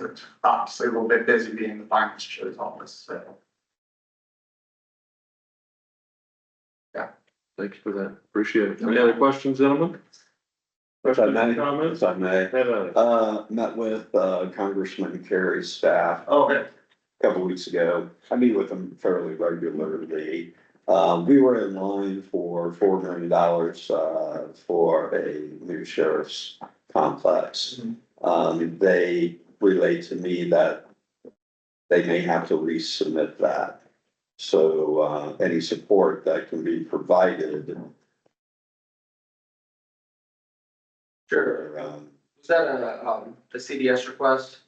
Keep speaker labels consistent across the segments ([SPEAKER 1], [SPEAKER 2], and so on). [SPEAKER 1] It's obviously a little bit busy being the finance chair's office, so.
[SPEAKER 2] Thanks for that. Appreciate it. Any other questions, gentlemen?
[SPEAKER 3] If I may,
[SPEAKER 2] Questions, Comments?
[SPEAKER 3] if I may,
[SPEAKER 2] Yeah.
[SPEAKER 3] uh, met with uh, Congressman Kerry's staff
[SPEAKER 1] Oh, Okay.
[SPEAKER 3] a couple weeks ago. I meet with them fairly regularly. Um, we were in line for four million dollars, uh, for a new sheriff's complex.
[SPEAKER 1] Mhm.
[SPEAKER 4] Mm-hmm.
[SPEAKER 3] Um, they relate to me that they may have to resubmit that. So, uh, any support that can be provided. Sure, um,
[SPEAKER 4] Was that a, um, the CDS request?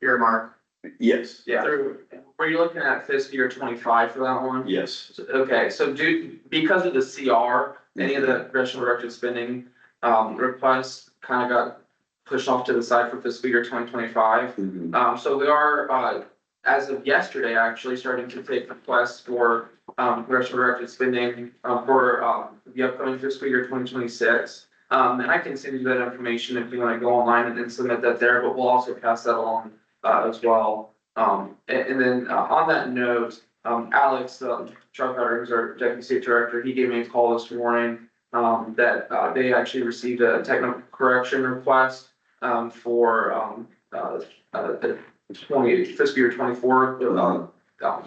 [SPEAKER 1] Earmark,
[SPEAKER 3] yes,
[SPEAKER 1] yeah,
[SPEAKER 4] Through, were you looking at fiscal year twenty-five for that one?
[SPEAKER 3] yes.
[SPEAKER 4] So- Okay, so do, because of the CR, any of the congressional directed spending, um, requests kind of got pushed off to the side for fiscal year twenty twenty-five.
[SPEAKER 3] Mhm.
[SPEAKER 4] Um, so we are, uh, as of yesterday, actually starting to take requests for, um, congressional directed spending, uh, for, um, the upcoming fiscal year twenty twenty-six. Um, and I can send you that information if you wanna go online and then submit that there, but we'll also pass that along, uh, as well. Um, and, and then, uh, on that note, um, Alex, um, Chuck Carter, who's our deputy state director, he gave me a call this morning, um, that, uh, they actually received a technical correction request, um, for, um, uh, uh, the twenty, fiscal year twenty-four, the, um, um,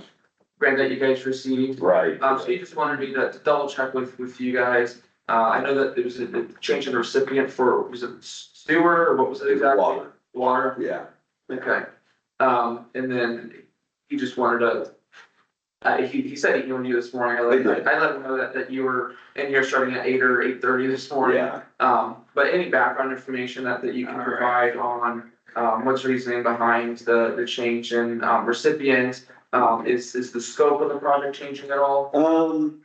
[SPEAKER 4] grant that you guys received.
[SPEAKER 3] Right.
[SPEAKER 4] Um, so you just wanted me to to double check with, with you guys. Uh, I know that there was a a change in the recipient for, was it sewer or what was it exactly?
[SPEAKER 3] Water.
[SPEAKER 4] Water,
[SPEAKER 3] Yeah,
[SPEAKER 4] okay. Um, and then he just wanted to, uh, he, he said he knew you this morning. I let, I let him know that, that you were in here starting at eight or eight-thirty this morning.
[SPEAKER 3] yeah,
[SPEAKER 4] Um, but any background information that, that you can provide on, um, what's reasoning behind the, the change in, um, recipient? Um, is, is the scope of the project changing at all?
[SPEAKER 3] um.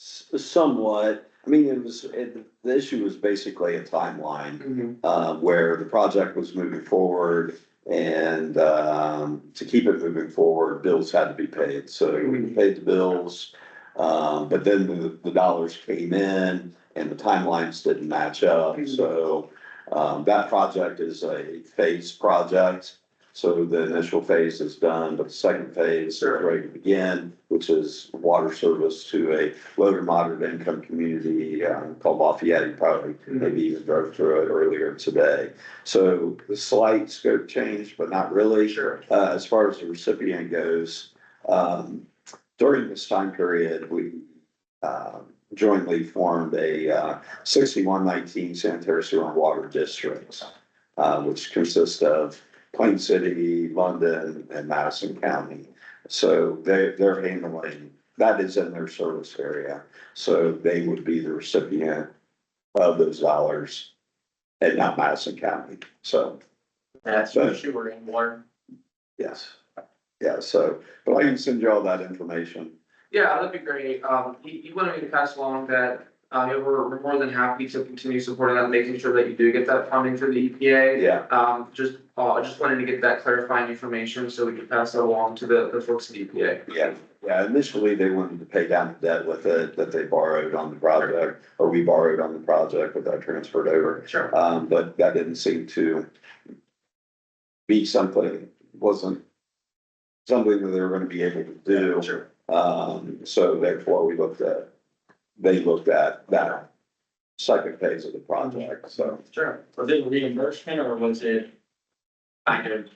[SPEAKER 3] s- Somewhat, I mean, it was, it, the issue was basically a timeline, uh, where the project was moving forward. And, um, to keep it moving forward, bills had to be paid, so we paid the bills. Um, but then the, the dollars came in and the timelines didn't match up, so. Um, that project is a phase project, so the initial phase is done, but the second phase is
[SPEAKER 4] Sure.
[SPEAKER 3] ready to begin. Which is water service to a low to moderate income community, um, called Lafayette, you probably maybe even drove through it earlier today. So the slight scope change, but not really.
[SPEAKER 4] Sure.
[SPEAKER 3] Uh, as far as the recipient goes, um, during this time period, we, um jointly formed a, uh, sixty-one nineteen sanitary sewer and water districts, uh, which consist of Plain City, London, and Madison County. So they, they're handling, that is in their service area, so they would be the recipient of those dollars and not Madison County, so.
[SPEAKER 1] that's what she were in, Warren.
[SPEAKER 3] Yes, yeah, so, but I can send you all that information.
[SPEAKER 4] Yeah, that'd be great. Um, he, he wanted me to pass along that, uh, we're, we're more than happy to continue supporting that, making sure that you do get that funding through the E EPA.
[SPEAKER 3] Yeah,
[SPEAKER 4] Um, just, uh, I just wanted to get that clarifying information so we could pass that along to the, the folks at E EPA.
[SPEAKER 3] yeah, yeah, initially they wanted to pay down the debt with it that they borrowed on the project, or we borrowed on the project that I transferred over.
[SPEAKER 4] Sure.
[SPEAKER 3] Um, but that didn't seem to be something, wasn't something that they were gonna be able to do.
[SPEAKER 4] Sure.
[SPEAKER 3] Um, so therefore we looked at, they looked at that second phase of the project, so.
[SPEAKER 4] Sure.
[SPEAKER 1] Was it reimbursement or was it kind of,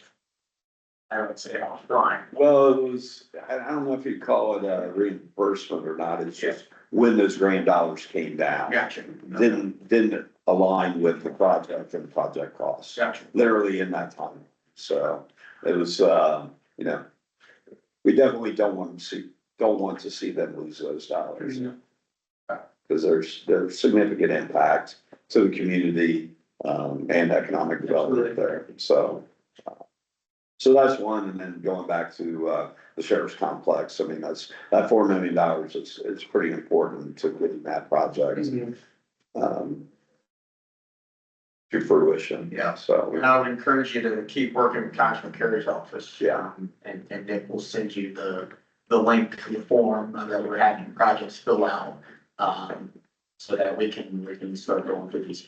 [SPEAKER 1] I would say offline?
[SPEAKER 3] Well, it was, I, I don't know if you'd call it a reimbursement or not, it's just when those grand dollars came down.
[SPEAKER 1] Gotcha.
[SPEAKER 3] Didn't, didn't align with the project and project costs,
[SPEAKER 1] Gotcha.
[SPEAKER 3] literally in that time. So it was, uh, you know, we definitely don't want to see, don't want to see them lose those dollars. Cause there's, there's significant impact to the community, um, and economic development there, so. uh, So that's one, and then going back to, uh, the sheriff's complex, I mean, that's, that four million dollars is, is pretty important to getting that project, um. To fruition.
[SPEAKER 1] Yeah.
[SPEAKER 3] So,
[SPEAKER 1] And I would encourage you to keep working with Congressman Kerry's office.
[SPEAKER 3] yeah,
[SPEAKER 1] And, and Nick will send you the, the link to the form that we're having projects fill out. Um, so that we can, we can start going through these.